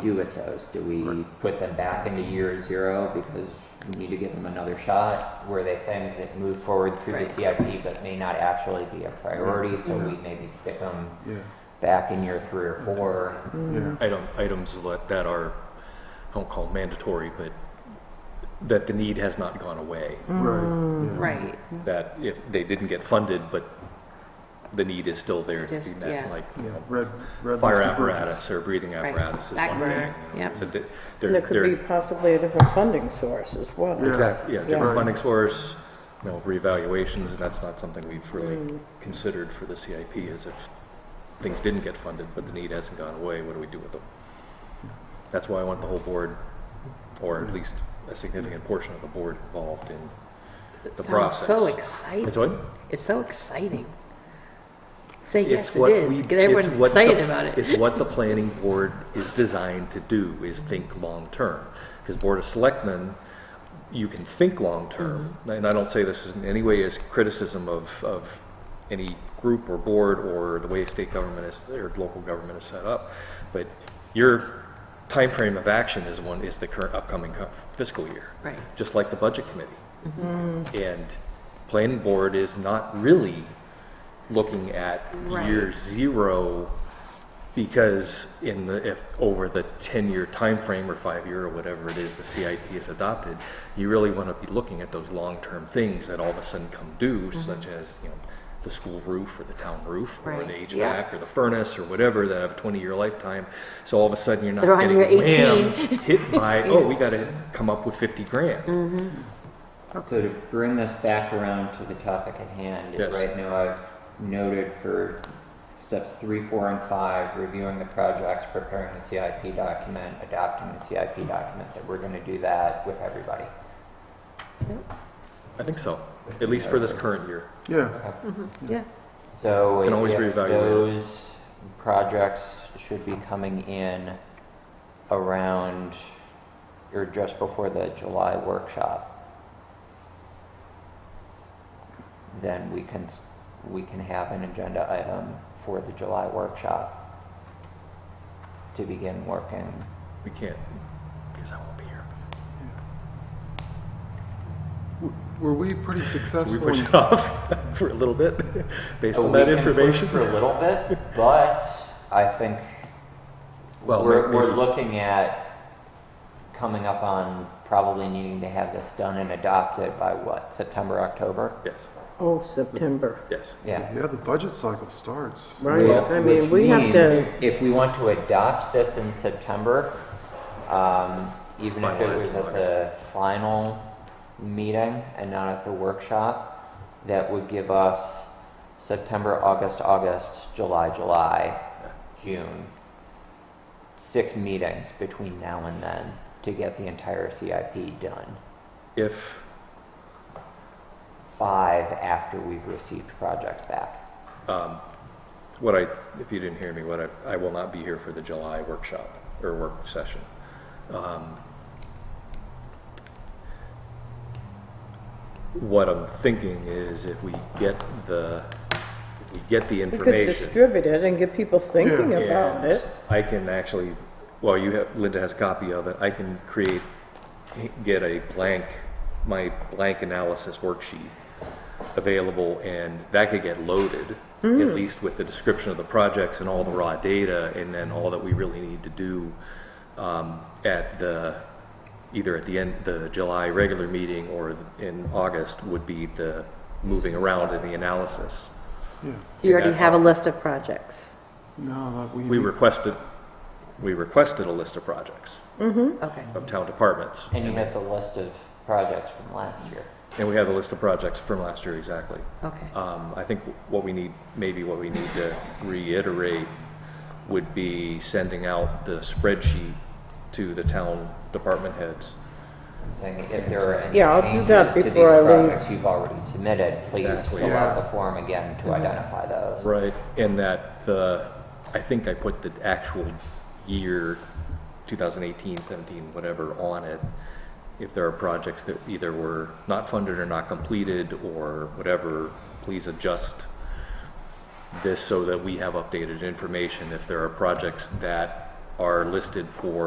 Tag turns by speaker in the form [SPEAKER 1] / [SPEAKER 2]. [SPEAKER 1] do with those? Do we put them back into year zero because we need to give them another shot? Were they things that move forward through the
[SPEAKER 2] Right.
[SPEAKER 1] CIP but may not actually be a priority, so we maybe stick them
[SPEAKER 3] Yeah,
[SPEAKER 1] back in year three or four?
[SPEAKER 3] yeah,
[SPEAKER 4] item, items let- that are, I won't call mandatory, but that the need has not gone away.
[SPEAKER 3] right. yeah.
[SPEAKER 2] Right,
[SPEAKER 4] That if they didn't get funded, but the need is still there to be
[SPEAKER 2] Just,
[SPEAKER 4] met,
[SPEAKER 2] yeah.
[SPEAKER 4] like, you
[SPEAKER 3] Yeah,
[SPEAKER 4] know,
[SPEAKER 3] red, red.
[SPEAKER 4] fire
[SPEAKER 3] listed bridges.
[SPEAKER 4] apparatus or breathing
[SPEAKER 2] Right.
[SPEAKER 4] apparatus is
[SPEAKER 2] Back
[SPEAKER 4] one
[SPEAKER 2] burner,
[SPEAKER 4] thing. you know,
[SPEAKER 2] yep.
[SPEAKER 4] so they- they're-
[SPEAKER 5] And there could
[SPEAKER 4] they're-
[SPEAKER 5] be possibly a different funding source as well.
[SPEAKER 3] Yeah.
[SPEAKER 4] Exactly, yeah,
[SPEAKER 3] Right.
[SPEAKER 4] different funding source, you know, reevaluations, and that's not something we've
[SPEAKER 3] Mm.
[SPEAKER 4] really considered for the CIP, is if things didn't get funded, but the need hasn't gone away, what do we do with them? That's why I want the whole board, or
[SPEAKER 3] Mm.
[SPEAKER 4] at least a significant portion of the board involved in the
[SPEAKER 2] Sounds
[SPEAKER 4] process.
[SPEAKER 2] so
[SPEAKER 4] It's
[SPEAKER 2] exciting.
[SPEAKER 4] what?
[SPEAKER 2] It's so exciting. Say
[SPEAKER 4] It's
[SPEAKER 2] yes, it
[SPEAKER 4] what we-
[SPEAKER 2] is.
[SPEAKER 4] it's
[SPEAKER 2] Get everyone
[SPEAKER 4] what the-
[SPEAKER 2] excited about it.
[SPEAKER 4] It's what the planning board is designed to do, is think long-term. Because Board of Selectmen, you can think long-term,
[SPEAKER 2] Mm-hmm.
[SPEAKER 4] and I don't say this in any way as criticism of, of any group or board or the way state government is, or local government is set up, but your time frame of action is one, is the current upcoming cu- fiscal year.
[SPEAKER 2] Right.
[SPEAKER 4] Just like the budget committee. And planning board is not really looking at
[SPEAKER 2] Right.
[SPEAKER 4] year zero because in the if over the 10 year time frame or 5 year or whatever it is the CIP is adopted you really want to be looking at those long term things that all of a sudden come due
[SPEAKER 2] Mm-hmm.
[SPEAKER 4] such as you know the school roof or the town roof or
[SPEAKER 2] Right,
[SPEAKER 4] the HVAC
[SPEAKER 2] yeah.
[SPEAKER 4] or the furnace or whatever that have a 20 year lifetime so all of a sudden you're not
[SPEAKER 2] They're on
[SPEAKER 4] getting
[SPEAKER 2] year 18.
[SPEAKER 4] whammed, hit by oh we got to come up with 50
[SPEAKER 2] Mm-hmm.
[SPEAKER 4] grand
[SPEAKER 1] So to bring this back around to the topic at hand,
[SPEAKER 4] Yes.
[SPEAKER 1] right now I've noted for steps three, four, and five, reviewing the projects, preparing the CIP document, adopting the CIP document, that we're gonna do that with everybody.
[SPEAKER 4] I think so at least for this current year
[SPEAKER 3] Yeah,
[SPEAKER 2] Yeah.
[SPEAKER 1] So
[SPEAKER 4] Can always
[SPEAKER 1] if
[SPEAKER 4] reevaluate it.
[SPEAKER 1] those projects should be coming in around or just before the July workshop. Then we can, s- we can have an agenda item for the July workshop to begin working.
[SPEAKER 4] we can't because I won't be here
[SPEAKER 3] W- were we pretty
[SPEAKER 4] We
[SPEAKER 3] successful?
[SPEAKER 4] push
[SPEAKER 3] in-
[SPEAKER 4] it off for a little bit based
[SPEAKER 1] Oh,
[SPEAKER 4] on
[SPEAKER 1] we
[SPEAKER 4] that
[SPEAKER 1] can push
[SPEAKER 4] information.
[SPEAKER 1] For a little bit, but I think
[SPEAKER 4] Well,
[SPEAKER 1] we're,
[SPEAKER 4] maybe-
[SPEAKER 1] we're looking at coming up on probably needing to have this done and adopted by what, September, October?
[SPEAKER 4] Yes,
[SPEAKER 5] Oh, September,
[SPEAKER 4] yes.
[SPEAKER 1] Yeah.
[SPEAKER 3] Yeah, the budget cycle starts.
[SPEAKER 5] right?
[SPEAKER 1] Well,
[SPEAKER 5] I mean,
[SPEAKER 1] which
[SPEAKER 5] we have
[SPEAKER 1] means
[SPEAKER 5] to,
[SPEAKER 1] If we want to adopt this in September, um, even if it
[SPEAKER 4] Finalize
[SPEAKER 1] was
[SPEAKER 4] in
[SPEAKER 1] at the final meeting and not at the workshop, that would give us September, August, August, July, July, June. Six meetings between now and then to get the entire CIP done.
[SPEAKER 4] If
[SPEAKER 1] Five after we've received projects back.
[SPEAKER 4] what I, if you didn't hear me, what I, I will not be here for the July workshop or work session. Um, What I'm thinking is if we get the, if we get the
[SPEAKER 5] we could
[SPEAKER 4] information.
[SPEAKER 5] distribute it and get people thinking
[SPEAKER 3] Yeah.
[SPEAKER 5] about
[SPEAKER 4] And
[SPEAKER 5] it.
[SPEAKER 4] I can actually, well, you have, Linda has a copy of it, I can create, get a blank, my blank analysis worksheet available, and that could get loaded, at
[SPEAKER 5] Hmm.
[SPEAKER 4] least with the description of the projects and all the raw data, and then all that we really need to do um, at the, either at the end, the July regular meeting or in August would be the moving around and the analysis.
[SPEAKER 3] Yeah,
[SPEAKER 2] So you already
[SPEAKER 4] That's
[SPEAKER 2] have a
[SPEAKER 4] all.
[SPEAKER 2] list of projects.
[SPEAKER 3] no, that we.
[SPEAKER 4] We
[SPEAKER 5] Mm-hmm.
[SPEAKER 4] requested, we requested a list of projects.
[SPEAKER 2] Okay.
[SPEAKER 4] of town departments.
[SPEAKER 1] And you have the list of projects from last year.
[SPEAKER 4] And we have a list of projects from last year, exactly.
[SPEAKER 2] Okay.
[SPEAKER 4] Um, I think what we need, maybe what we need to reiterate would be sending out the spreadsheet to the town department heads.
[SPEAKER 1] saying if there are any
[SPEAKER 5] Yeah, I'll do
[SPEAKER 1] changes
[SPEAKER 5] that
[SPEAKER 1] to these
[SPEAKER 5] before I leave.
[SPEAKER 1] projects you've already submitted, please
[SPEAKER 4] Exactly.
[SPEAKER 1] fill
[SPEAKER 3] Yeah.
[SPEAKER 1] out the form again to identify those.
[SPEAKER 4] Right. And that the, I think I put the actual year, 2018, 17, whatever, on it. If there are projects that either were not funded or not completed or whatever, please adjust this so that we have updated information. If there are projects that are listed for